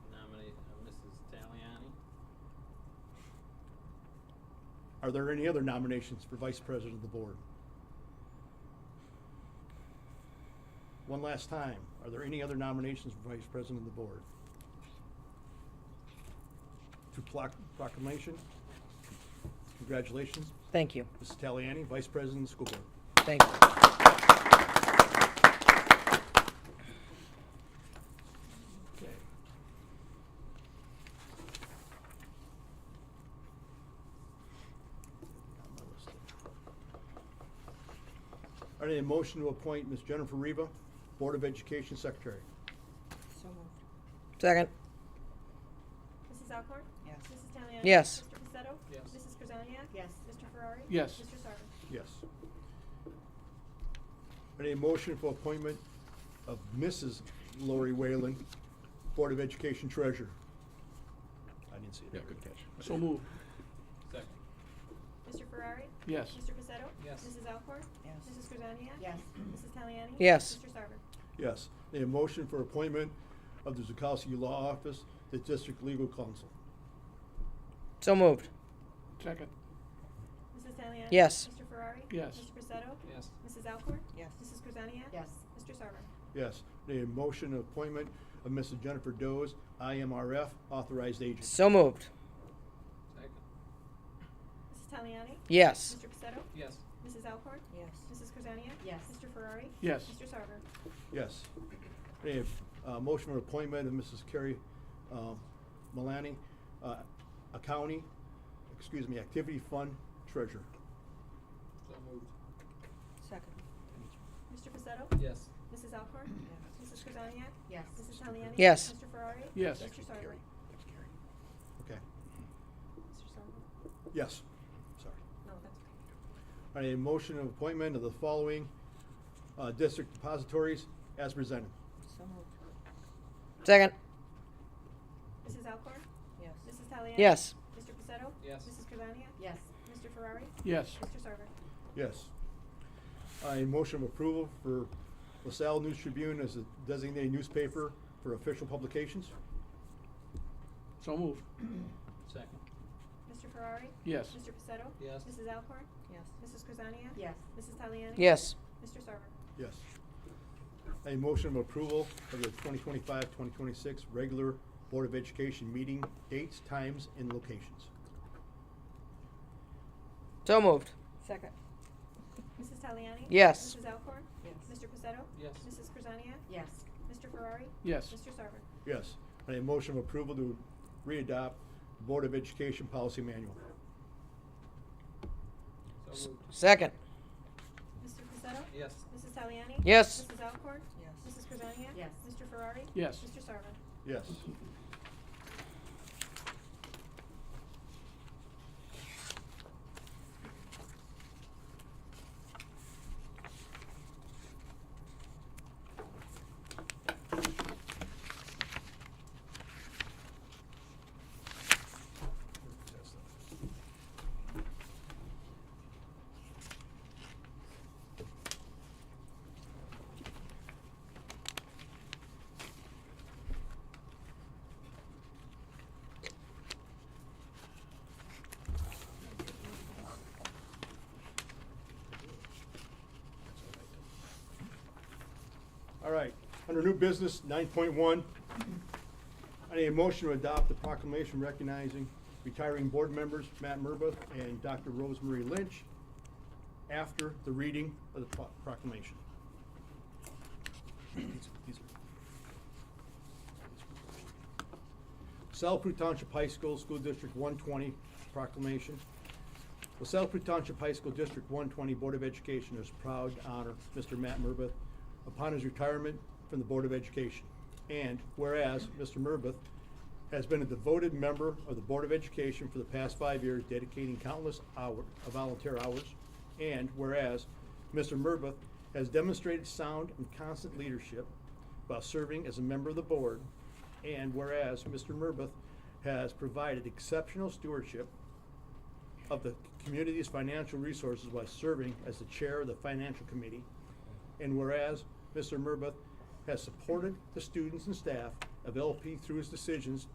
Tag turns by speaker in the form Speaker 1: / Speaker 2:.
Speaker 1: uh,
Speaker 2: Are there any other nominations for Vice President of the Board? One last time, are there any other nominations for Vice President of the Board? To ploc- proclamation, congratulations,
Speaker 3: Thank you,
Speaker 2: Mrs. Taliani, Vice President of the School Board.
Speaker 3: thank you.
Speaker 2: Okay. Got my list there. I need a motion to appoint Ms. Jennifer Reba, Board of Education Secretary.
Speaker 4: So moved.
Speaker 3: Second,
Speaker 5: Mrs. Alcorn?
Speaker 4: Yes.
Speaker 5: Mrs. Taliani?
Speaker 3: Yes.
Speaker 5: Mr. Pacetto?
Speaker 1: Yes.
Speaker 5: Mrs. Krasniak?
Speaker 4: Yes.
Speaker 5: Mr. Ferrari?
Speaker 1: Yes.
Speaker 5: Mr. Sarver?
Speaker 2: Yes. I need a motion for appointment of Mrs. Lori Whalen, Board of Education Treasurer. I didn't see it.
Speaker 6: Yeah, good catch.
Speaker 1: So moved. Second.
Speaker 5: Mr. Ferrari?
Speaker 1: Yes.
Speaker 5: Mr. Pacetto?
Speaker 1: Yes.
Speaker 5: Mrs. Alcorn?
Speaker 4: Yes.
Speaker 5: Mrs. Krasniak?
Speaker 4: Yes.
Speaker 5: Mrs. Taliani?
Speaker 3: Yes.
Speaker 5: Mr. Sarver?
Speaker 2: Yes. I Need a motion for appointment of the Zukowski Law Office, the District Legal Counsel.
Speaker 3: so moved.
Speaker 1: Second.
Speaker 5: Mrs. Taliani?
Speaker 3: Yes.
Speaker 5: Mr. Ferrari?
Speaker 1: Yes.
Speaker 5: Mr. Pacetto?
Speaker 1: Yes.
Speaker 5: Mrs. Alcorn?
Speaker 4: Yes.
Speaker 5: Mrs. Krasniak?
Speaker 4: Yes.
Speaker 5: Mr. Sarver?
Speaker 2: Yes, the motion of appointment of Mrs. Jennifer Doe's IMRF authorized agent.
Speaker 3: So moved.
Speaker 1: Second.
Speaker 5: Mrs. Taliani?
Speaker 3: Yes.
Speaker 5: Mr. Pacetto?
Speaker 1: Yes.
Speaker 5: Mrs. Alcorn?
Speaker 4: Yes.
Speaker 5: Mrs. Krasniak?
Speaker 4: Yes.
Speaker 5: Mr. Ferrari?
Speaker 1: Yes.
Speaker 5: Mr. Sarver?
Speaker 2: Yes. Any, uh, motion for appointment of Mrs. Carrie, um, Malani, uh, a county, excuse me, activity fund treasurer.
Speaker 1: So moved.
Speaker 4: Second.
Speaker 5: Mr. Pacetto?
Speaker 1: Yes.
Speaker 5: Mrs. Alcorn?
Speaker 4: Yes.
Speaker 5: Mrs. Krasniak?
Speaker 4: Yes.
Speaker 5: Mrs. Taliani?
Speaker 3: Yes.
Speaker 5: Mr. Ferrari?
Speaker 1: Yes.
Speaker 5: Mr.
Speaker 6: Actually,
Speaker 5: Sarver?
Speaker 6: Carrie. That's Carrie.
Speaker 2: Okay,
Speaker 5: Mr. Sarver?
Speaker 2: yes, sorry.
Speaker 5: No, that's okay.
Speaker 2: All right, a motion of appointment of the following, uh, district depositories as presented.
Speaker 4: So moved.
Speaker 3: Second,
Speaker 5: Mrs. Alcorn?
Speaker 4: Yes.
Speaker 5: Mrs. Taliani?
Speaker 3: yes.
Speaker 5: Mr. Pacetto?
Speaker 1: Yes.
Speaker 5: Mrs. Krasniak?
Speaker 4: Yes.
Speaker 5: Mr. Ferrari?
Speaker 1: Yes.
Speaker 5: Mr. Sarver?
Speaker 2: Yes. I motion of approval for LaSalle News Tribune as a designated newspaper for official publications.
Speaker 1: So moved. Second.
Speaker 5: Mr. Ferrari?
Speaker 1: Yes.
Speaker 5: Mr. Pacetto?
Speaker 1: Yes.
Speaker 5: Mrs. Alcorn?
Speaker 4: Yes.
Speaker 5: Mrs. Krasniak?
Speaker 4: Yes.
Speaker 5: Mrs. Taliani?
Speaker 3: Yes.
Speaker 5: Mr. Sarver?
Speaker 2: Yes. A motion of approval of the 2025-2026 regular Board of Education meeting dates, times, and locations.
Speaker 3: So moved.
Speaker 4: Second.
Speaker 5: Mrs. Taliani?
Speaker 3: Yes.
Speaker 5: Mrs. Alcorn?
Speaker 4: Yes.
Speaker 5: Mr. Pacetto?
Speaker 1: Yes.
Speaker 5: Mrs. Krasniak?
Speaker 4: Yes.
Speaker 5: Mr. Ferrari?
Speaker 1: Yes.
Speaker 5: Mr. Sarver?
Speaker 2: Yes. I need a motion of approval to readopt Board of Education Policy Manual.
Speaker 3: S- Second,
Speaker 5: Mr. Pacetto?
Speaker 1: Yes.
Speaker 5: Mrs. Taliani?
Speaker 3: Yes.
Speaker 5: Mrs. Alcorn?
Speaker 4: Yes.
Speaker 5: Mrs. Krasniak?
Speaker 4: Yes.
Speaker 5: Mr. Ferrari?
Speaker 1: Yes.
Speaker 5: Mr. Sarver?
Speaker 2: Yes. All right, under new business, nine point one, I need a motion to adopt the proclamation recognizing retiring board members Matt Murba and Dr. Rosemary Lynch after the reading of the pro- proclamation. South Prue Township High School, School District one twenty proclamation. The South Prue Township High School District 120 Board of Education is proud to honor Mr. Matt Murbach upon his retirement from the Board of Education. And whereas Mr. Murbach has been a devoted member of the Board of Education for the past five years, dedicating countless hour, uh, volunteer hours. And whereas Mr. Murbach has demonstrated sound and constant leadership while serving as a member of the board. And whereas Mr. Murbach has provided exceptional stewardship of the community's financial resources while serving as the chair of the financial committee. And whereas Mr. Murbach has supported the students and staff of LP through his decisions